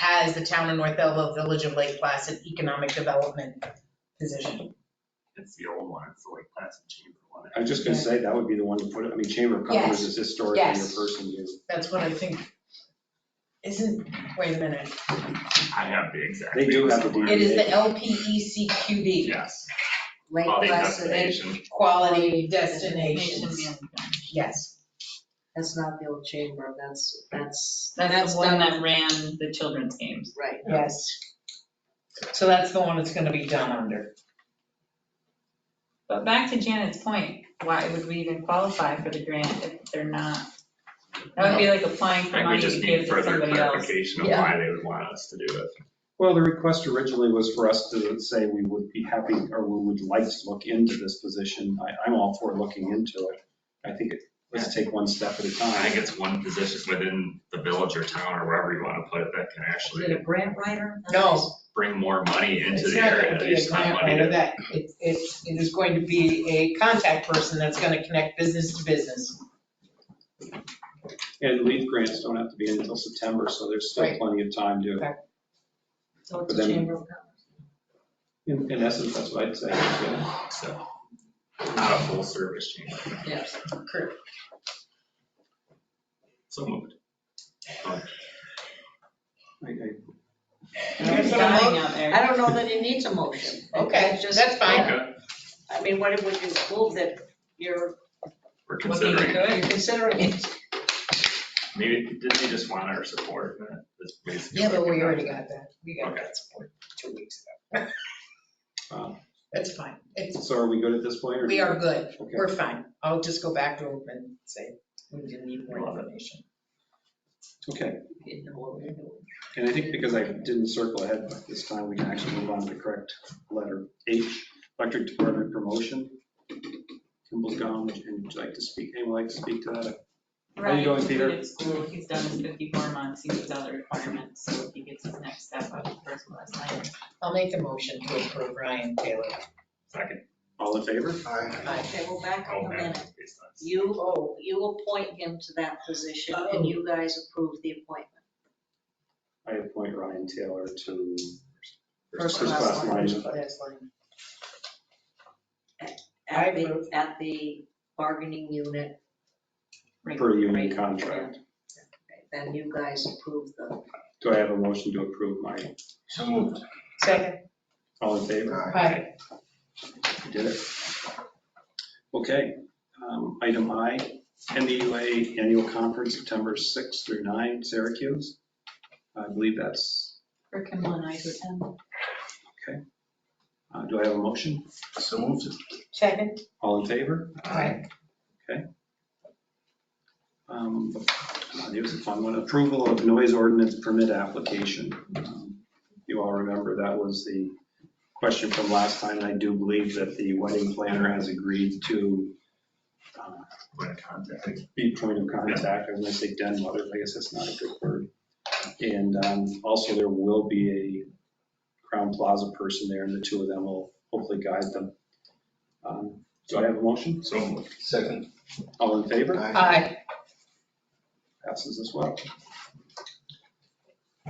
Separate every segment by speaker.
Speaker 1: as the town of North Elba, Village of Lake Placid Economic Development position.
Speaker 2: It's the old one, it's the Lake Placid Chamber one.
Speaker 3: I was just gonna say, that would be the one to put, it. I mean, Chamber of Commerce
Speaker 1: Yes.
Speaker 3: is historically your
Speaker 1: Yes.
Speaker 3: person to.
Speaker 1: That's what I think. Isn't, wait a minute,
Speaker 2: I have the exact.
Speaker 3: They do
Speaker 2: papers
Speaker 3: have to do-
Speaker 2: somewhere.
Speaker 1: it is the E LPECQD,
Speaker 2: Yes.
Speaker 4: Lake
Speaker 2: Well, the
Speaker 4: Placid.
Speaker 2: destination.
Speaker 1: Quality Destinations. Yes,
Speaker 4: That's not the old chamber, that's, that's,
Speaker 5: That's
Speaker 4: that's
Speaker 5: the
Speaker 4: done,
Speaker 5: one that ran the children's games.
Speaker 4: right.
Speaker 1: yes. So that's the one that's gonna be done under.
Speaker 5: But back to Janet's point, why would we even qualify for the grant if they're not? That would be like applying
Speaker 2: I
Speaker 5: for
Speaker 2: think we
Speaker 5: money to
Speaker 2: just
Speaker 5: give
Speaker 2: need
Speaker 5: to
Speaker 2: further
Speaker 5: somebody else.
Speaker 2: clarification of
Speaker 1: Yeah.
Speaker 2: why they would want us to do it.
Speaker 3: Well, the request originally was for us to say we would be happy, or we would like to look into this position. I, I'm all for looking into it. I think, it- let's take one step at a
Speaker 2: I think
Speaker 3: time.
Speaker 2: it's one position within the village or town or wherever you want to put it that can
Speaker 4: Is it
Speaker 2: actually
Speaker 4: a grant writer?
Speaker 1: No.
Speaker 2: bring more money into
Speaker 1: It's
Speaker 2: the
Speaker 1: not
Speaker 2: area.
Speaker 1: gonna be
Speaker 2: There's
Speaker 1: a
Speaker 2: not
Speaker 1: grant
Speaker 2: money to-
Speaker 1: writer, that, it, it, it is going to be a contact person that's gonna connect business to business.
Speaker 3: And leave grants don't have to be in until September, so there's still
Speaker 1: Right.
Speaker 3: plenty of time to,
Speaker 4: So
Speaker 3: But
Speaker 4: it's a
Speaker 3: then-
Speaker 4: chamber of commerce.
Speaker 3: in, in essence, that's what I'd say. yeah.
Speaker 2: So, not a full service chamber.
Speaker 4: Yes.
Speaker 1: Correct.
Speaker 2: So moved.
Speaker 3: I- I-
Speaker 1: Here's
Speaker 5: It's
Speaker 1: what I'm
Speaker 5: dying
Speaker 1: looking-
Speaker 5: out there.
Speaker 4: I don't know that it needs a motion.
Speaker 1: Okay,
Speaker 4: It's just-
Speaker 1: that's fine.
Speaker 2: Okay,
Speaker 4: I mean, what it would you move that you're
Speaker 2: we're
Speaker 5: Looking
Speaker 2: considering.
Speaker 5: into it.
Speaker 4: considering it?
Speaker 2: Maybe, didn't they just want our support? That- that's basically
Speaker 1: Yeah, but
Speaker 2: what
Speaker 1: we
Speaker 2: I
Speaker 1: already got
Speaker 2: got.
Speaker 1: that, we got
Speaker 2: Okay. Um,
Speaker 1: that support two weeks ago.
Speaker 3: Wow.
Speaker 1: That's fine, it's,
Speaker 3: So are we good at this point? or-
Speaker 1: we are good,
Speaker 3: Okay.
Speaker 1: we're fine, I'll just go back to them and say, we didn't need more information.
Speaker 3: Okay,
Speaker 4: You know what we're doing.
Speaker 3: and I think because I didn't circle ahead this time, we can actually move on to the correct letter H, electric department promotion. Kimball's gone, would you would you like to speak, anyone like to speak to that? How you
Speaker 5: Ryan
Speaker 3: doing, Peter?
Speaker 5: completed school, he's done his 54 months, he meets all the requirements, so if he gets his next step up, first and last language.
Speaker 1: I'll make the motion to approve Ryan Taylor.
Speaker 2: Second.
Speaker 3: All in favor?
Speaker 4: Okay, well, back
Speaker 2: Oh,
Speaker 4: up a
Speaker 2: man.
Speaker 4: minute. You, oh, you appoint him to that position
Speaker 5: Oh.
Speaker 4: and you guys approve the appointment.
Speaker 3: I appoint Ryan Taylor to
Speaker 2: First
Speaker 3: first
Speaker 2: class.
Speaker 3: class lineman.
Speaker 1: Last line. I
Speaker 4: At the,
Speaker 1: approve.
Speaker 4: at the bargaining unit,
Speaker 5: Right,
Speaker 3: per union
Speaker 5: right.
Speaker 3: contract.
Speaker 4: then you guys approve the,
Speaker 3: Do I have a motion to approve my,
Speaker 6: So moved.
Speaker 1: Second.
Speaker 3: all in favor?
Speaker 1: Hi.
Speaker 3: You Did it? Okay, um, item I, NDUA Annual Conference, September 6th through 9, Syracuse. I believe that's,
Speaker 5: For Kimball and I to attend.
Speaker 3: uh, do I have a motion?
Speaker 6: So moved.
Speaker 1: Second.
Speaker 3: All in favor?
Speaker 1: Aye.
Speaker 3: Um, uh, Here's a fun one, approval of noise ordinance permit application. Um, You all remember that was the question from last time, and I do believe that the wedding planner has agreed to uh,
Speaker 2: When contacting.
Speaker 3: be point of contact, I was gonna say den mother, I guess that's not a good word. And um, also there will be a Crown Plaza person there and the two of them will hopefully guide them. Um, Do I have a motion?
Speaker 2: So moved.
Speaker 6: Second.
Speaker 3: All in favor?
Speaker 6: Aye.
Speaker 1: Aye.
Speaker 3: Passes as well.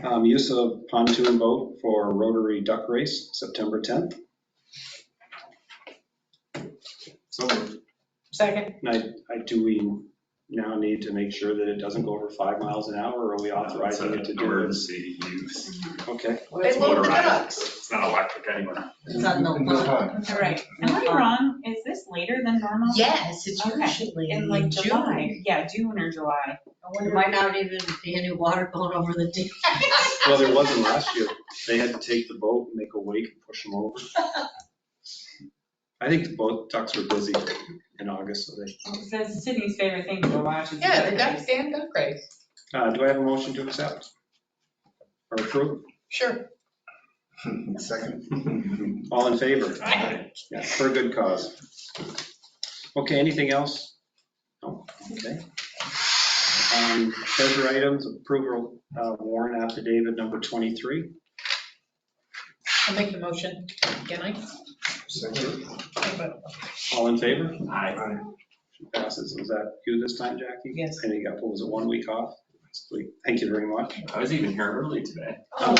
Speaker 3: Um, Use of pontoon boat for Rotary Duck Race, September 10th.
Speaker 2: So moved.
Speaker 1: Second.
Speaker 3: And I, I, do we now need to make sure that it doesn't go over five miles an hour or are we
Speaker 2: It's
Speaker 3: authorizing
Speaker 2: an
Speaker 3: it to do this?
Speaker 2: Emergency use.
Speaker 3: Okay.
Speaker 1: They love the
Speaker 2: motorized.
Speaker 1: ducks.
Speaker 2: It's not electric anymore.
Speaker 4: it's not no
Speaker 6: No
Speaker 4: fun.
Speaker 6: fun.
Speaker 5: All right, am I wrong? Is this later than normal?
Speaker 1: Yes, it's
Speaker 5: Okay.
Speaker 1: usually
Speaker 5: In like
Speaker 1: June.
Speaker 5: July, yeah, June or July.
Speaker 1: I
Speaker 4: There
Speaker 1: wonder-
Speaker 4: might not even be any water going over the ditch.
Speaker 3: Well, there wasn't last year. They had to take the boat, and make a wake, and push them over. I think the boat ducks were busy in August, so they,
Speaker 5: It says Sydney's favorite thing to watch is.
Speaker 1: Yeah, the
Speaker 5: duck
Speaker 1: ducks and duck race.
Speaker 3: uh, do I have a motion to accept? Or approve?
Speaker 1: Sure.
Speaker 6: Second.
Speaker 3: All in favor?
Speaker 2: Aye.
Speaker 3: Yeah, for a good cause. Okay, anything else? No, okay. Um, Treasure items, approval uh, warrant affidavit number 23.
Speaker 1: I'll make the motion. Can I?
Speaker 6: Second.
Speaker 3: All in favor?
Speaker 2: Aye.
Speaker 6: Aye.
Speaker 3: Passes. Is that you this time, Jackie?
Speaker 1: Yes.
Speaker 3: I think I got, what was it, one week off? Thank you very much.
Speaker 2: I was even here early today.
Speaker 3: Oh.